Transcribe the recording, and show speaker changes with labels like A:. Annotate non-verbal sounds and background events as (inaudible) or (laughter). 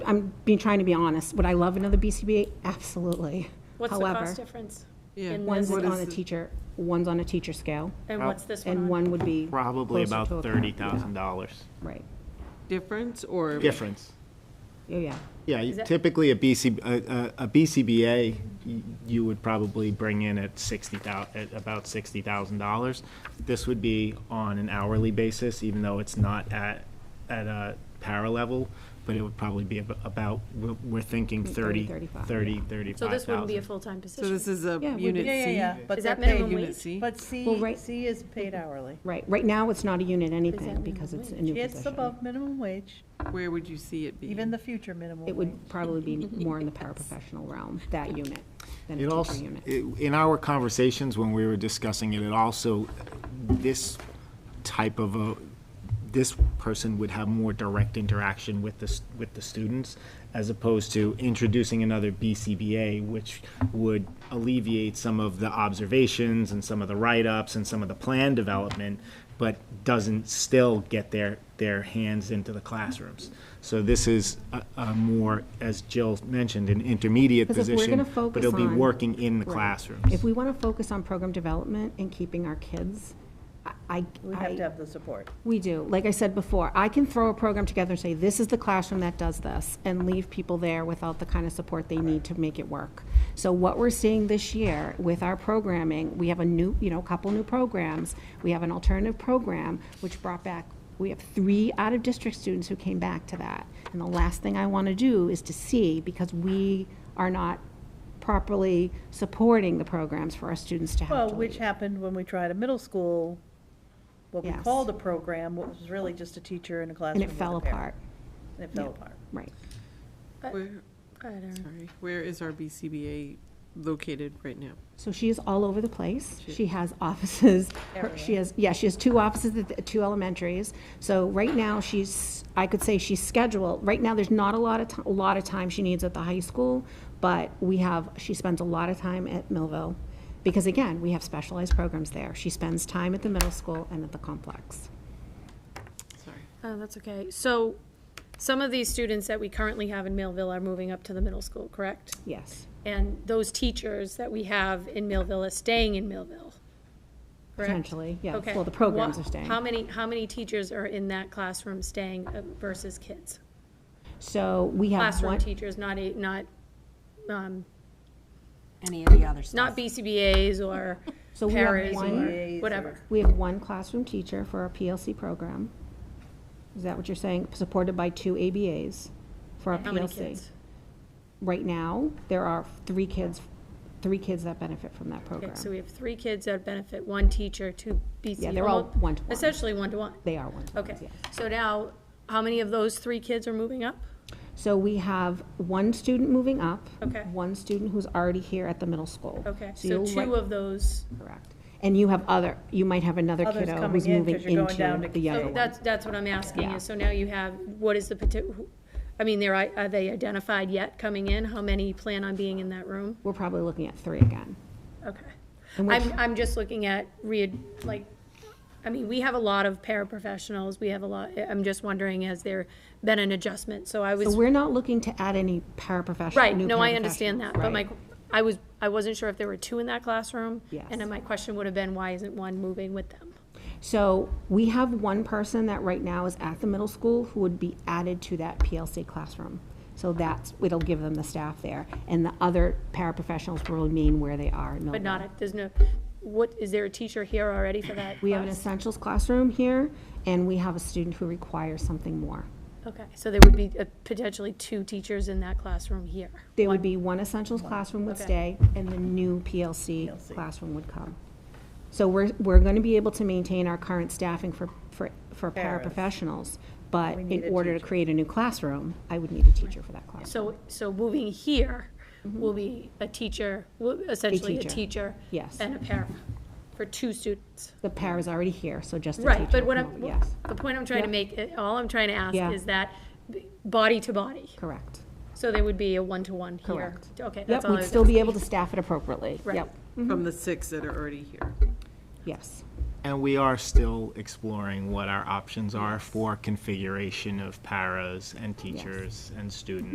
A: I'm being, trying to be honest. Would I love another BCBA? Absolutely.
B: What's the
A: However,
B: cost difference?
C: Yeah.
B: in
A: One's
B: this-
A: on a teacher, one's on a teacher scale,
B: And what's this one
A: and
B: on?
A: one would be.
D: Probably
A: closer
D: about
A: to a-
D: thirty thousand dollars
A: Right.
C: Difference or?
D: difference.
A: Yeah, yeah.
D: Yeah, you-
B: that-
D: typically a BC, a, a- a BCBA, y- you would probably bring in at sixty thou, at about sixty thousand dollars. This would be on an hourly basis, even though it's not at, at a para level, but it would probably be ab- about, we're, we're thinking thirty,
A: 35,
D: thirty, thirty-five
B: So
D: thousand.
B: this wouldn't be a full-time
C: So this
B: position?
C: is a
A: Yeah, we-
C: unit
E: Yeah, yeah,
C: C?
E: yeah, but
B: Is
E: they're
B: that minimum
E: paid,
C: Unit
B: wage?
C: C?
E: but
A: Well,
E: C,
A: right-
E: C is paid hourly.
A: Right. Right now, it's not a unit anything
B: minimum
A: because it's a
B: wage?
A: new
E: It's
A: position.
E: above minimum wage,
C: Where would you see it be?
E: even the future minimum wage.
A: It would probably
B: (laughs)
A: be more in the paraprofessional realm, that unit, than
D: It
A: a
D: also,
A: teacher unit.
D: it- in our conversations when we were discussing it, it also, this type of a, this person would have more direct interaction with the, s- with the students as opposed to introducing another BCBA, which would alleviate some of the observations and some of the write-ups and some of the plan development, but doesn't still get their, their hands into the classrooms. So this is a, a more, as Jill mentioned, an intermediate
A: Because if we're
D: position,
A: gonna
D: but
A: focus
D: it'll be
A: on-
D: working in the
A: Right.
D: classrooms.
A: If we want to focus on program development and keeping our kids, I- I.
E: We have
A: I-
E: to have the support.
A: We do. Like I said before, I can throw a program together and say, this is the classroom that does this, and leave people there without the kind of support they need to make it work. So what we're seeing this year with our programming, we have a new, you know, a couple new programs. We have an alternative program, which brought back, we have three out-of-district students who came back to that. And the last thing I want to do is to see, because we are not properly supporting the programs for our students to have to
E: Well,
A: leave.
E: which happened when we tried a middle school, what we
A: Yes.
E: called a program, what was really just a teacher in a classroom
A: And it
E: with a
A: fell
E: parent.
A: apart,
E: And it fell
A: Yeah.
E: apart.
A: right.
C: Where,
B: Go ahead, Erin.
C: sorry, where is our BCBA located right now?
A: So she is all over the place.
C: She-
A: She has offices. her- She
E: Everywhere.
A: has, yeah, she has two offices, at the- two elementaries. So right now, she's, I could say she's scheduled, right now, there's not a lot of, ti- a lot of time she needs at the high school, but we have, she spends a lot of time at Millville. Because again, we have specialized programs there. She spends time at the middle school and at the complex.
C: Sorry.
B: Oh, that's okay. So some of these students that we currently have in Millville are moving up to the middle school, correct?
A: Yes.
B: And those teachers that we have in Millville are staying in Millville, correct?
A: Potentially, yes.
B: Okay.
A: Well, the programs
B: Wha-
A: are staying.
B: How many, how many teachers are in that classroom staying uh, versus kids?
A: So we have
B: Classroom
A: one,
B: teachers, not a, not, um,
F: any of the other stuff.
B: not BCBA's or
A: So we have
B: paras or
E: one-
B: whatever.
A: we have one classroom teacher for our PLC program. Is that what you're saying? Supported by two ABAs for our PLC.
B: How many kids?
A: right now, there are three kids, three kids that benefit from that
B: Okay,
A: program.
B: so we have three kids that benefit, one teacher, two BC.
A: Yeah, they're all
B: almo-
A: one-to-one.
B: Essentially one-to-one.
A: They are one-to-ones,
B: Okay,
A: yes.
B: so now, how many of those three kids are moving up?
A: So we have one student moving up.
B: Okay.
A: One student who's already here at the middle school.
B: Okay, so
A: you'll
B: two
A: like-
B: of those,
A: Correct. And you have other, you might have another
E: Others
A: kiddo
E: coming
A: who's
E: in,
A: moving
E: 'cause you're going down
A: into
E: to-
A: the younger
B: so
A: one.
B: that's, that's what I'm asking
A: Yeah.
B: is, so now you have, what is the, pati- who- I mean, they're, i- are they identified yet coming in? How many plan on being in that room?
A: We're probably looking at three again.
B: Okay.
A: And we're-
B: I'm, I'm just looking at re, like, I mean, we have a lot of paraprofessionals, we have a lot, I'm just wondering, has there been an adjustment? So I was.
A: So we're not looking to add any paraprofessional,
B: Right,
A: new
B: no, I
A: paraprofessionals,
B: understand that, but my,
A: right.
B: I was, I wasn't sure if there were two in that classroom.
A: Yes.
B: And then my question would have been, why isn't one moving with them?
A: So we have one person that right now is at the middle school who would be added to that PLC classroom. So that's, it'll give them the staff there, and the other paraprofessionals will remain where they are. in
B: But
A: Millville.
B: not, at- there's no, what, is there a teacher here already for that
A: We have an
B: class?
A: essentials classroom here, and we have a student who requires something more.
B: Okay, so there would be uh, potentially two teachers in that classroom here.
A: There would be one essentials classroom would stay,
B: Okay.
A: and the new PLC classroom would come. So we're, we're gonna be able to maintain our current staffing for, for, for
E: Paras.
A: paraprofessionals, but
E: We need
A: in
E: a
A: order to
E: teacher.
A: create a new classroom, I would need a teacher for that classroom.
B: So, so moving here will be a teacher, will- essentially a
A: Mm-hmm. teacher,
B: teacher.
A: yes.
B: And a para, for two students.
A: The par is already here, so just the teacher.
B: Right, but what
A: will
B: I'm,
A: come over. Yes,
B: the point I'm trying to make, uh, all I'm trying to ask
A: Yeah.
B: is that b- body to body.
A: correct,
B: So there would be a one-to-one here?
A: correct.
B: Okay, that's
A: Yep,
B: all I
A: we'd
B: was
A: still be
B: asking.
A: able to staff it appropriately.
B: Right.
A: Yep,
E: Mm-hmm.
C: From the six that are already here.
A: yes.
D: And we are still exploring what our options are for configuration of paras and teachers and students.